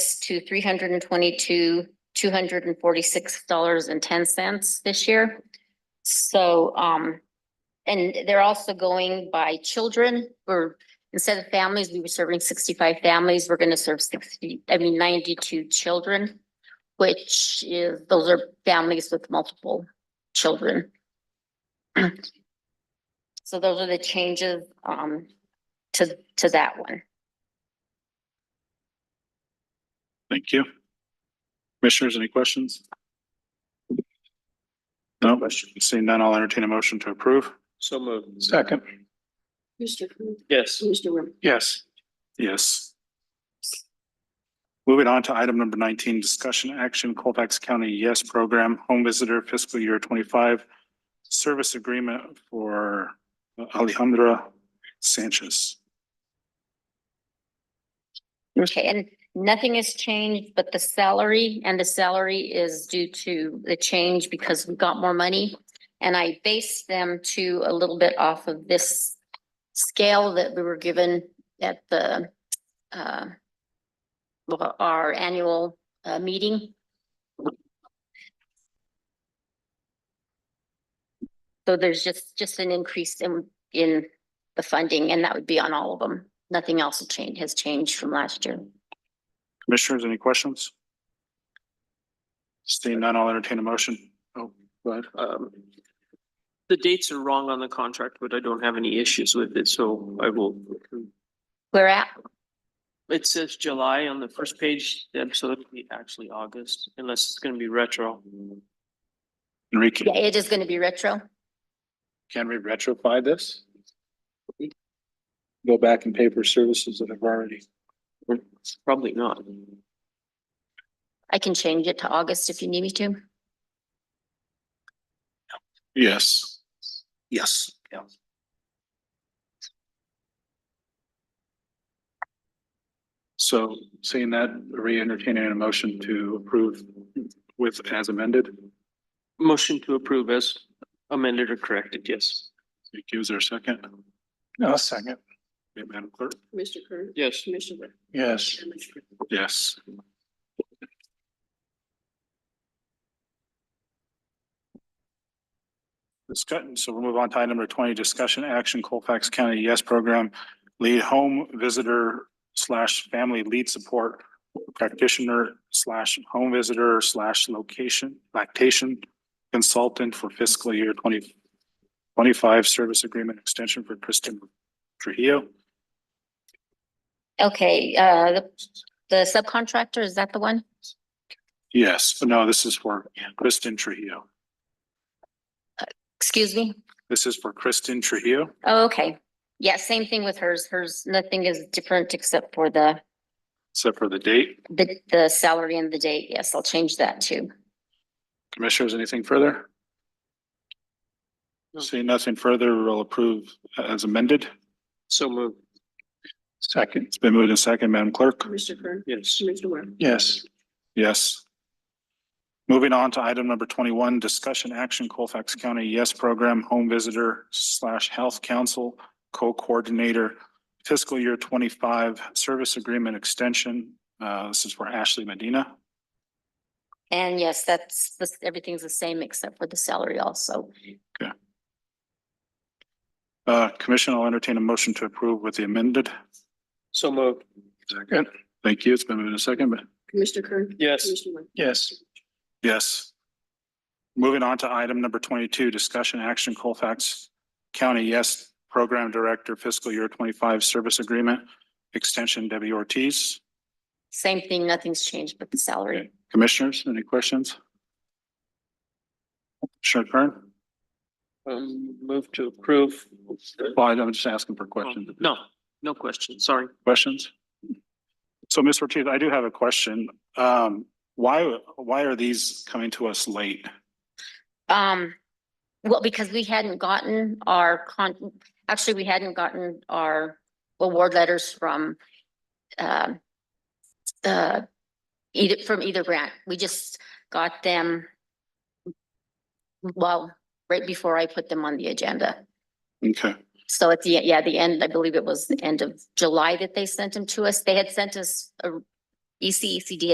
to three hundred and twenty-two, two hundred and forty-six dollars and ten cents this year. So, um, and they're also going by children, or instead of families, we were serving sixty-five families, we're gonna serve sixty, I mean ninety-two children, which is, those are families with multiple children. So those are the changes, um, to, to that one. Thank you. Commissioners, any questions? No, seeing none, I'll entertain a motion to approve. So moved. Second. Mr. Coon, Yes. Mr. Rim, Yes. Yes. Moving on to item number nineteen, discussion action Colfax County Yes Program Home Visitor Fiscal Year twenty-five Service Agreement for Alejandra Sanchez. Okay, and nothing has changed but the salary, and the salary is due to the change because we got more money. And I based them to a little bit off of this scale that we were given at the uh well, our annual uh meeting. So there's just just an increase in in the funding, and that would be on all of them. Nothing else has changed, has changed from last year. Commissioners, any questions? Seeing none, I'll entertain a motion. Oh, go ahead. Um, the dates are wrong on the contract, but I don't have any issues with it, so I will. We're at, It says July on the first page, then, so it'll be actually August, unless it's gonna be retro. Enrique, yeah, it is gonna be retro. can we retrofit this? Go back and pay for services that have already. Probably not. I can change it to August if you need me to. Yes. Yes. Yeah. So seeing that, re-entertaining a motion to approve with as amended, Motion to approve as amended or corrected, yes. thank you. Is there a second? No, second. Madam Clerk? Mr. Kern, Yes. Mr. Rim. Yes. Yes. Discussion, so we'll move on to item number twenty, discussion action Colfax County Yes Program Lead Home Visitor slash Family Lead Support Practitioner slash Home Visitor slash Location Lactation Consultant for fiscal year twenty twenty-five Service Agreement Extension for Kristen Trujillo. Okay, uh, the, the subcontractor, is that the one? Yes, no, this is for Kristen Trujillo. Excuse me? This is for Kristen Trujillo. Oh, okay. Yeah, same thing with hers. Hers, nothing is different except for the, Except for the date. the, the salary and the date. Yes, I'll change that too. Commissioners, anything further? No. Seeing nothing further, we'll approve as amended. So moved. Second. It's been moved and second, Madam Clerk? Mr. Kern, Yes. Mr. Rim. Yes. Yes. Moving on to item number twenty-one, discussion action Colfax County Yes Program Home Visitor slash Health Council Co-Coordinator Fiscal Year twenty-five Service Agreement Extension. Uh, this is for Ashley Medina. And yes, that's, this, everything's the same except for the salary also. Uh, Commission, I'll entertain a motion to approve with the amended. So moved. Second. Thank you. It's been moved and second, but Mr. Kern. Yes. Mr. Rim. Yes. Yes. Moving on to item number twenty-two, discussion action Colfax County Yes Program Director Fiscal Year Twenty-Five Service Agreement Extension Debbie Ortiz. Same thing, nothing's changed but the salary. Commissioners, any questions? Commissioner Kern? Um, move to approve. Well, I'm just asking for questions. Oh, No, no question, sorry. Oh. Questions? So Ms. Ortiz, I do have a question. Um, why, why are these coming to us late? Um, well, because we hadn't gotten our con, actually, we hadn't gotten our award letters from, um, uh, either, from either grant. We just got them, well, right before I put them on the agenda. Okay. So at the, yeah, the end, I E believe it was the end of July that they sent them to us. They had sent us a ECECD